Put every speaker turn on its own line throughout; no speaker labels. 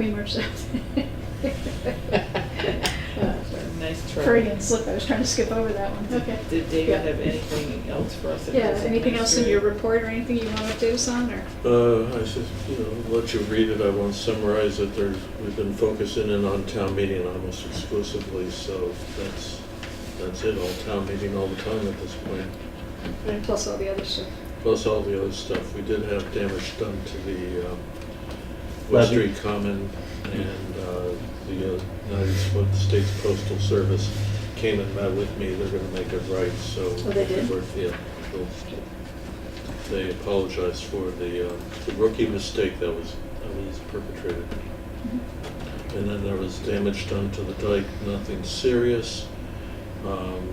cream or something.
Nice try.
Freudian slip, I was trying to skip over that one, okay.
Did David
Yeah.
have anything else for us? that
Yeah,
was
anything else in your
administrative?
report or anything you want to do, son, or?
Uh, I should, you know, let you read it, I won't summarize it, there's, we've been focusing in on town meeting almost exclusively, so that's, that's it, all town meeting all the time at this point.
And plus all the other stuff.
Plus all the other stuff, we did have damage done to the, um, West
Levy.
Street Common and, uh, the uh, United Spo- States Postal Service came and met with me, they're gonna make it right, so.
Oh, they did?
we're- Yeah, they'll- they apologized for the, uh, the rookie mistake that was, that was perpetrated. And then there was damage done to the dike, nothing serious. Um,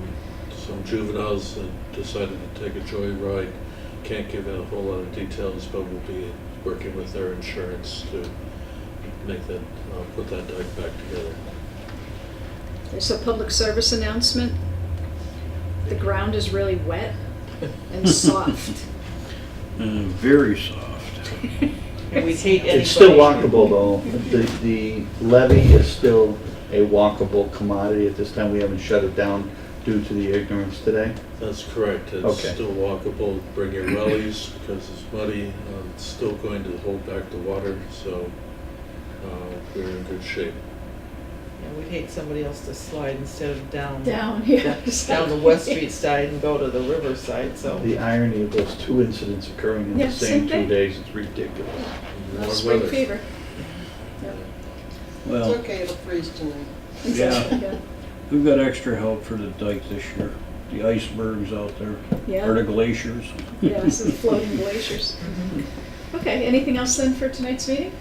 some juveniles that decided to take a joyride, can't give out a whole lot of details, but we'll be working with their insurance to make that, uh, put that dike back together.
There's a public service announcement. The ground is really wet and soft.
Uh,
Mm,
very soft.
And we take anybody.
It's still walkable though. The, the levy is still a walkable commodity at this time. We haven't shut it down due to the ignorance today.
That's correct, it's
Okay.
still walkable, bring your wellies, because it's muddy, um, it's still going to hold back the water, so, uh, we're in good shape.
And we'd hate somebody else to slide instead of down.
Down here.
Down the West Street side and go to the riverside, so.
The irony of those two incidents occurring in
Yeah,
the
same
same two
thing.
days, it's ridiculous.
Warm
Spring
weather.
fever. Yep.
It's
Well,
okay, it'll freeze tonight.
yeah,
Yeah.
we've got extra help for the dike this year. The icebergs out there, or
Yeah,
the glaciers.
yeah, some floating glaciers. Okay, anything else then for tonight's meeting?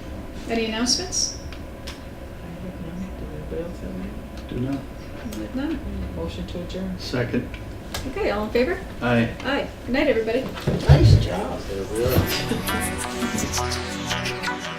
Any announcements?
Anybody else have any?
Do not.
None?
Motion to adjourn.
Second,
Okay, all in favor?
aye.
Aye. Good night, everybody.
Nice job.
There we are.